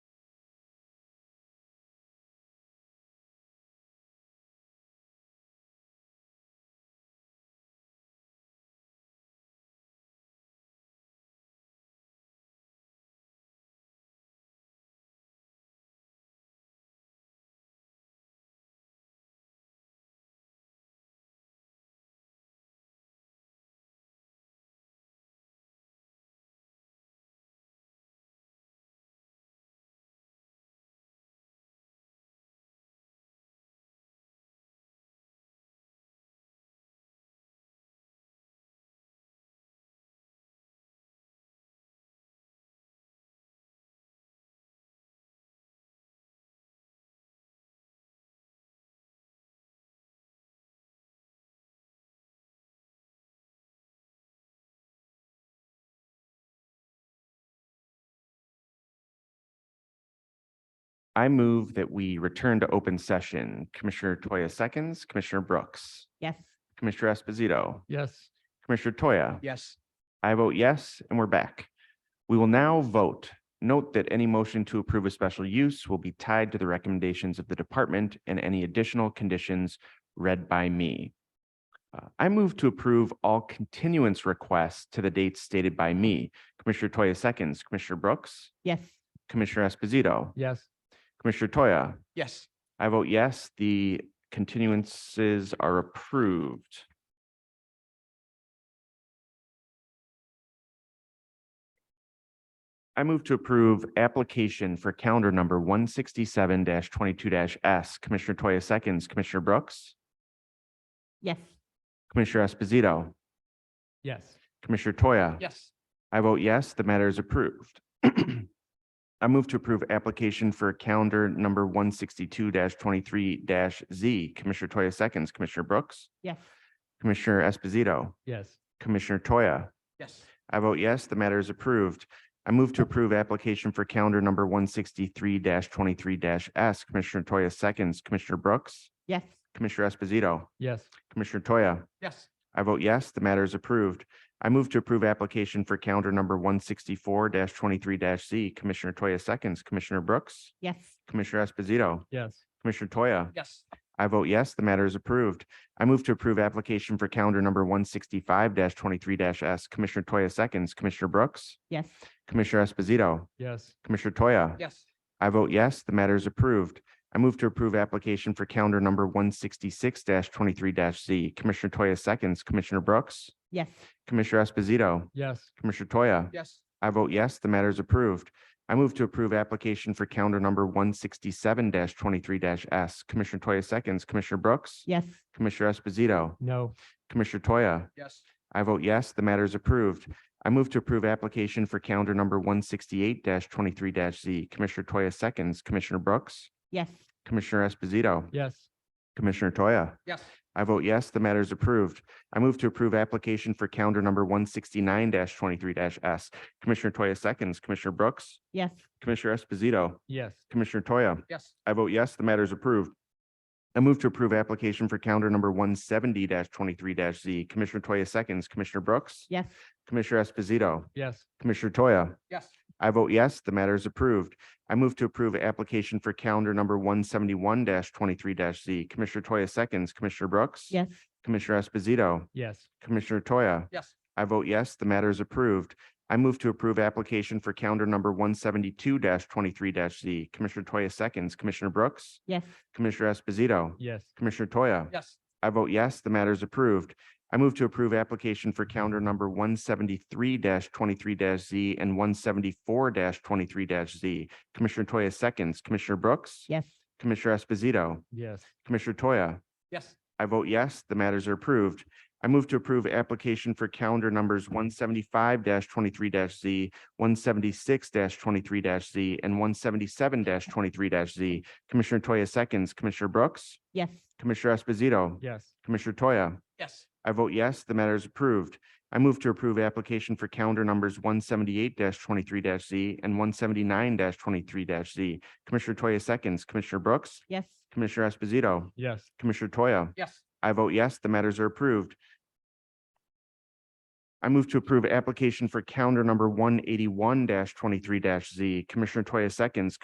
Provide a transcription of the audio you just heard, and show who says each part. Speaker 1: I move that we return to open session. Commissioner Toya seconds, Commissioner Brooks,
Speaker 2: Yes.
Speaker 1: Commissioner Esposito,
Speaker 3: Yes.
Speaker 1: Commissioner Toya.
Speaker 3: Yes.
Speaker 1: I vote yes, and we're back. We will now vote. Note that any motion to approve a special use will be tied to the recommendations of the department and any additional conditions read by me. Uh, I move to approve all continuance requests to the dates stated by me. Commissioner Toya seconds, Commissioner Brooks,
Speaker 2: Yes.
Speaker 1: Commissioner Esposito,
Speaker 3: Yes.
Speaker 1: Commissioner Toya.
Speaker 3: Yes.
Speaker 1: I vote yes, the continuances are approved. I move to approve application for calendar number one sixty-seven twenty-two S. Commissioner Toya seconds, Commissioner Brooks,
Speaker 2: Yes.
Speaker 1: Commissioner Esposito,
Speaker 3: Yes.
Speaker 1: Commissioner Toya.
Speaker 3: Yes.
Speaker 1: I vote yes, the matter is approved. I move to approve application for calendar number one sixty-two twenty-three Z. Commissioner Toya seconds, Commissioner Brooks,
Speaker 2: Yes.
Speaker 1: Commissioner Esposito,
Speaker 3: Yes.
Speaker 1: Commissioner Toya.
Speaker 3: Yes.
Speaker 1: I vote yes, the matter is approved. I move to approve application for calendar number one sixty-three twenty-three S. Commissioner Toya seconds, Commissioner Brooks,
Speaker 2: Yes.
Speaker 1: Commissioner Esposito,
Speaker 3: Yes.
Speaker 1: Commissioner Toya.
Speaker 3: Yes.
Speaker 1: I vote yes, the matter is approved. I move to approve application for calendar number one sixty-four twenty-three Z. Commissioner Toya seconds, Commissioner Brooks,
Speaker 2: Yes.
Speaker 1: Commissioner Esposito,
Speaker 3: Yes.
Speaker 1: Commissioner Toya.
Speaker 3: Yes.
Speaker 1: I vote yes, the matter is approved. I move to approve application for calendar number one sixty-five twenty-three S. Commissioner Toya seconds, Commissioner Brooks,
Speaker 2: Yes.
Speaker 1: Commissioner Esposito,
Speaker 3: Yes.
Speaker 1: Commissioner Toya.
Speaker 3: Yes.
Speaker 1: I vote yes, the matter is approved. I move to approve application for calendar number one sixty-six twenty-three Z. Commissioner Toya seconds, Commissioner Brooks,
Speaker 2: Yes.
Speaker 1: Commissioner Esposito,
Speaker 3: Yes.
Speaker 1: Commissioner Toya.
Speaker 3: Yes.
Speaker 1: I vote yes, the matter is approved. I move to approve application for calendar number one sixty-seven twenty-three S. Commissioner Toya seconds, Commissioner Brooks,
Speaker 2: Yes.
Speaker 1: Commissioner Esposito,
Speaker 3: No.
Speaker 1: Commissioner Toya.
Speaker 3: Yes.
Speaker 1: I vote yes, the matter is approved. I move to approve application for calendar number one sixty-eight twenty-three Z. Commissioner Toya seconds, Commissioner Brooks,
Speaker 2: Yes.
Speaker 1: Commissioner Esposito,
Speaker 3: Yes.
Speaker 1: Commissioner Toya.
Speaker 3: Yes.
Speaker 1: I vote yes, the matter is approved. I move to approve application for calendar number one sixty-nine twenty-three S. Commissioner Toya seconds, Commissioner Brooks,
Speaker 2: Yes.
Speaker 1: Commissioner Esposito,
Speaker 3: Yes.
Speaker 1: Commissioner Toya.
Speaker 3: Yes.
Speaker 1: I vote yes, the matter is approved. I move to approve application for calendar number one seventy twenty-three Z. Commissioner Toya seconds, Commissioner Brooks,
Speaker 2: Yes.
Speaker 1: Commissioner Esposito,
Speaker 3: Yes.
Speaker 1: Commissioner Toya.
Speaker 3: Yes.
Speaker 1: I vote yes, the matter is approved. I move to approve application for calendar number one seventy-one twenty-three Z. Commissioner Toya seconds, Commissioner Brooks.
Speaker 2: Yes.
Speaker 1: Commissioner Esposito,
Speaker 3: Yes.
Speaker 1: Commissioner Toya.
Speaker 3: Yes.
Speaker 1: I vote yes, the matter is approved. I move to approve application for calendar number one seventy-two twenty-three Z. Commissioner Toya seconds, Commissioner Brooks,
Speaker 2: Yes.
Speaker 1: Commissioner Esposito,
Speaker 3: Yes.
Speaker 1: Commissioner Toya.
Speaker 3: Yes.
Speaker 1: I vote yes, the matter is approved. I move to approve application for calendar number one seventy-three twenty-three Z and one seventy-four twenty-three Z. Commissioner Toya seconds, Commissioner Brooks,
Speaker 2: Yes.
Speaker 1: Commissioner Esposito,
Speaker 3: Yes.
Speaker 1: Commissioner Toya.
Speaker 3: Yes.
Speaker 1: I vote yes, the matters are approved. I move to approve application for calendar numbers one seventy-five twenty-three Z, one seventy-six twenty-three Z, and one seventy-seven twenty-three Z. Commissioner Toya seconds, Commissioner Brooks,
Speaker 2: Yes.
Speaker 1: Commissioner Esposito,
Speaker 3: Yes.
Speaker 1: Commissioner Toya.
Speaker 3: Yes.
Speaker 1: I vote yes, the matter is approved. I move to approve application for calendar numbers one seventy-eight twenty-three Z and one seventy-nine twenty-three Z. Commissioner Toya seconds, Commissioner Brooks,
Speaker 2: Yes.
Speaker 1: Commissioner Esposito,
Speaker 3: Yes.
Speaker 1: Commissioner Toya.
Speaker 3: Yes.
Speaker 1: I vote yes, the matters are approved. I move to approve application for calendar number one eighty-one twenty-three Z. Commissioner Toya seconds,